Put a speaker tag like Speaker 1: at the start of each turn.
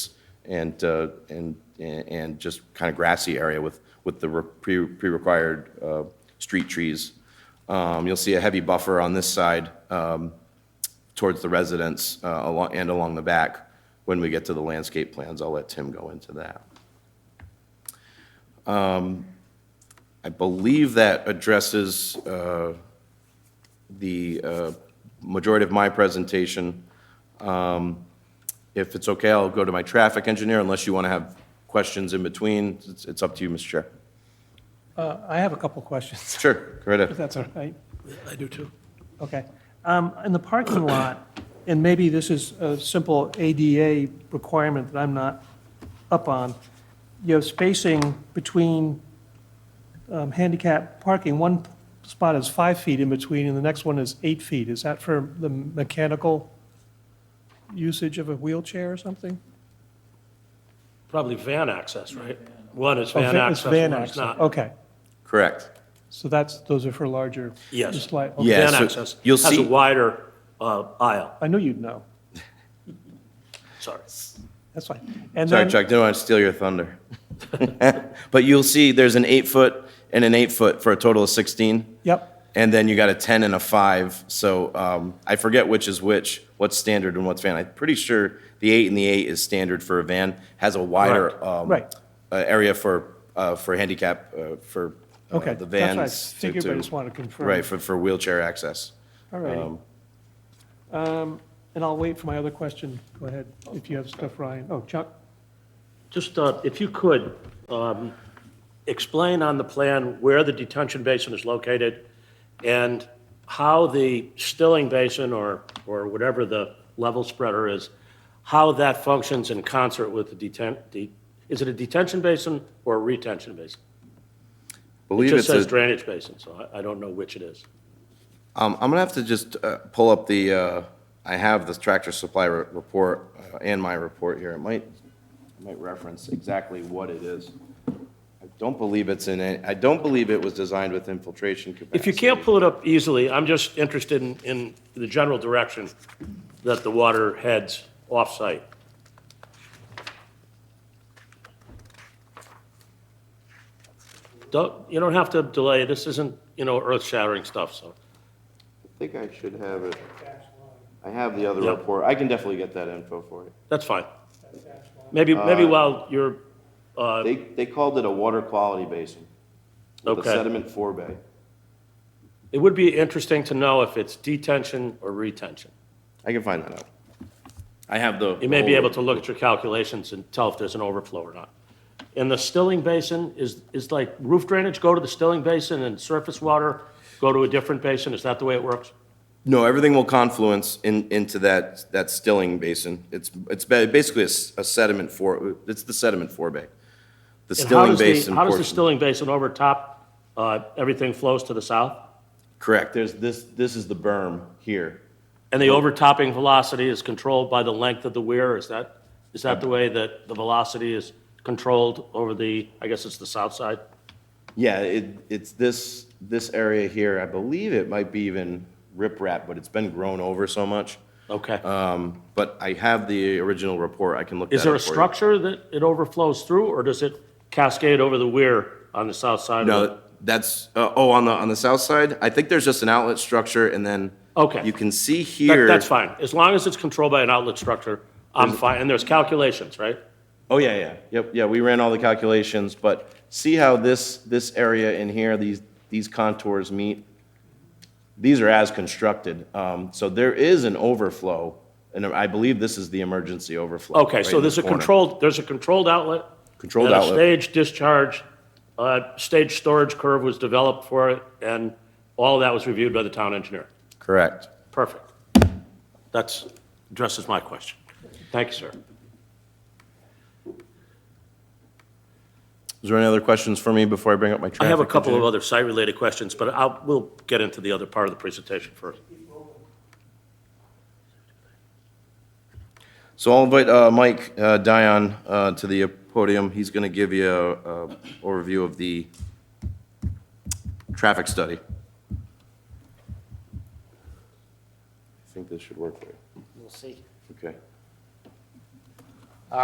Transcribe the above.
Speaker 1: and, uh, and, and just kind of grassy area with, with the re- pre- pre-required uh, street trees. Um, You'll see a heavy buffer on this side um, towards the residence uh, along- and along the back. When we get to the landscape plans, I'll let Tim go into that. Um, I believe that addresses uh, the uh, majority of my presentation. Um, If it's okay, I'll go to my traffic engineer unless you want to have questions in between. It's- It's up to you, Mr. Chair.
Speaker 2: Uh, I have a couple questions,
Speaker 1: Sure, go right
Speaker 2: if
Speaker 1: ahead.
Speaker 2: that's all right.
Speaker 3: I do too.
Speaker 2: Okay. Um, In the parking lot, and maybe this is a simple ADA requirement that I'm not up on, you have spacing between um, handicap parking. One spot is five feet in between, and the next one is eight feet. Is that for the mechanical usage of a wheelchair or something?
Speaker 3: Probably van access, right? One is
Speaker 2: Oh,
Speaker 3: van
Speaker 2: va-
Speaker 3: access,
Speaker 2: It's van
Speaker 3: one is
Speaker 2: access.
Speaker 3: not.
Speaker 2: Okay.
Speaker 1: Correct.
Speaker 2: So that's, those are for larger.
Speaker 3: Yes.
Speaker 2: just like- okay.
Speaker 1: Yeah,
Speaker 3: Van
Speaker 1: so
Speaker 3: access
Speaker 1: you'll
Speaker 3: has a
Speaker 1: see-
Speaker 3: wider uh, aisle,
Speaker 2: I knew you'd know.
Speaker 3: sorry.
Speaker 2: That's fine. And
Speaker 1: Sorry,
Speaker 2: then.
Speaker 1: Chuck, didn't want to steal your thunder. But you'll see there's an eight-foot and an eight-foot for a total of 16.
Speaker 2: Yep.
Speaker 1: And then you got a 10 and a 5. So um, I forget which is which, what's standard and what's van. I'm pretty sure the 8 and the 8 is standard for a van, has a wider
Speaker 3: Correct.
Speaker 1: um,
Speaker 2: Right.
Speaker 1: uh, area for, uh, for handicap, uh, for uh,
Speaker 2: Okay,
Speaker 1: the
Speaker 2: that's what I
Speaker 1: vans. to-
Speaker 2: figured, but I just wanted to confirm.
Speaker 1: Right, for, for wheelchair access.
Speaker 2: All righty.
Speaker 1: Um,
Speaker 2: Um, And I'll wait for my other question. Go ahead, if you have stuff, Ryan. Oh, Chuck?
Speaker 3: Just, uh, if you could, um, explain on the plan where the detention basin is located and how the stilling basin or, or whatever the level spreader is, how that functions in concert with the detent, de- is it a detention basin or a retention basin? It
Speaker 1: Believe
Speaker 3: just
Speaker 1: it's
Speaker 3: says
Speaker 1: a,
Speaker 3: drainage basin, so I, I don't know which it is.
Speaker 1: um, I'm gonna have to just uh, pull up the, uh, I have the tractor supply re- report uh, and my report here. It might, it might reference exactly what it is. I don't believe it's in, a- I don't believe it was designed with infiltration capacity.
Speaker 3: If you can't pull it up easily, I'm just interested in, in the general direction that the water heads off-site. Don't, you don't have to delay, this isn't, you know, earth-shattering stuff, so.
Speaker 1: I think I should have it. I have the other
Speaker 3: Yep.
Speaker 1: report. I can definitely get that info for you.
Speaker 3: That's fine. Maybe, maybe while you're, uh,
Speaker 1: They, they called it a water quality basin. with a
Speaker 3: Okay.
Speaker 1: sediment forebay.
Speaker 3: it would be interesting to know if it's detention or retention.
Speaker 1: I can find that out. I have the.
Speaker 3: You may be able to look at your calculations and tell if there's an overflow or not. And the stilling basin, is, is like roof drainage go to the stilling basin and surface water go to a different basin? Is that the way it works?
Speaker 1: No, everything will confluence in, into that, that stilling basin. It's, it's ba- basically a s- a sediment for, it's the sediment forebay. The
Speaker 3: And how
Speaker 1: stilling
Speaker 3: does the-
Speaker 1: basin
Speaker 3: How does the
Speaker 1: portion.
Speaker 3: stilling basin overtop, uh, everything flows to the south?
Speaker 1: Correct. There's this, this is the berm here.
Speaker 3: And the overtopping velocity is controlled by the length of the weir? Is that, is that the way that the velocity is controlled over the, I guess it's the south side?
Speaker 1: Yeah, it, it's this, this area here, I believe it might be even riprap, but it's been grown over so much.
Speaker 3: Okay.
Speaker 1: Um, But I have the original report, I can look that
Speaker 3: Is there
Speaker 1: up
Speaker 3: a
Speaker 1: for you.
Speaker 3: structure that it overflows through, or does it cascade over the weir on the south side? of the-
Speaker 1: No, that's, uh, oh, on the, on the south side? I think there's just an outlet structure and then.
Speaker 3: Okay.
Speaker 1: You can see
Speaker 3: That-
Speaker 1: here.
Speaker 3: That's fine, as long as it's controlled by an outlet structure, I'm fine, and there's calculations, right?
Speaker 1: Oh, yeah, yeah, yep, yeah, we ran all the calculations, but see how this, this area in here, these, these contours meet? These are as constructed, um, so there is an overflow, and I believe this is the emergency overflow.
Speaker 3: Okay,
Speaker 1: right
Speaker 3: so
Speaker 1: in
Speaker 3: there's
Speaker 1: the
Speaker 3: a
Speaker 1: corner.
Speaker 3: controlled, there's a controlled outlet.
Speaker 1: Controlled
Speaker 3: and
Speaker 1: outlet.
Speaker 3: a stage discharge, uh, stage storage curve was developed for it, and all that was reviewed by the town engineer.
Speaker 1: Correct.
Speaker 3: Perfect. That's, addresses my question. Thank you, sir.
Speaker 1: Is there any other questions for me before I bring up my traffic?
Speaker 3: I have a couple of
Speaker 1: engineer?
Speaker 3: other site-related questions, but I'll, we'll get into the other part of the presentation first.
Speaker 1: So I'll invite uh, Mike uh, Dion uh, to the podium. He's going to give you an overview of the traffic study. I think this should work there.
Speaker 4: We'll see.
Speaker 1: Okay.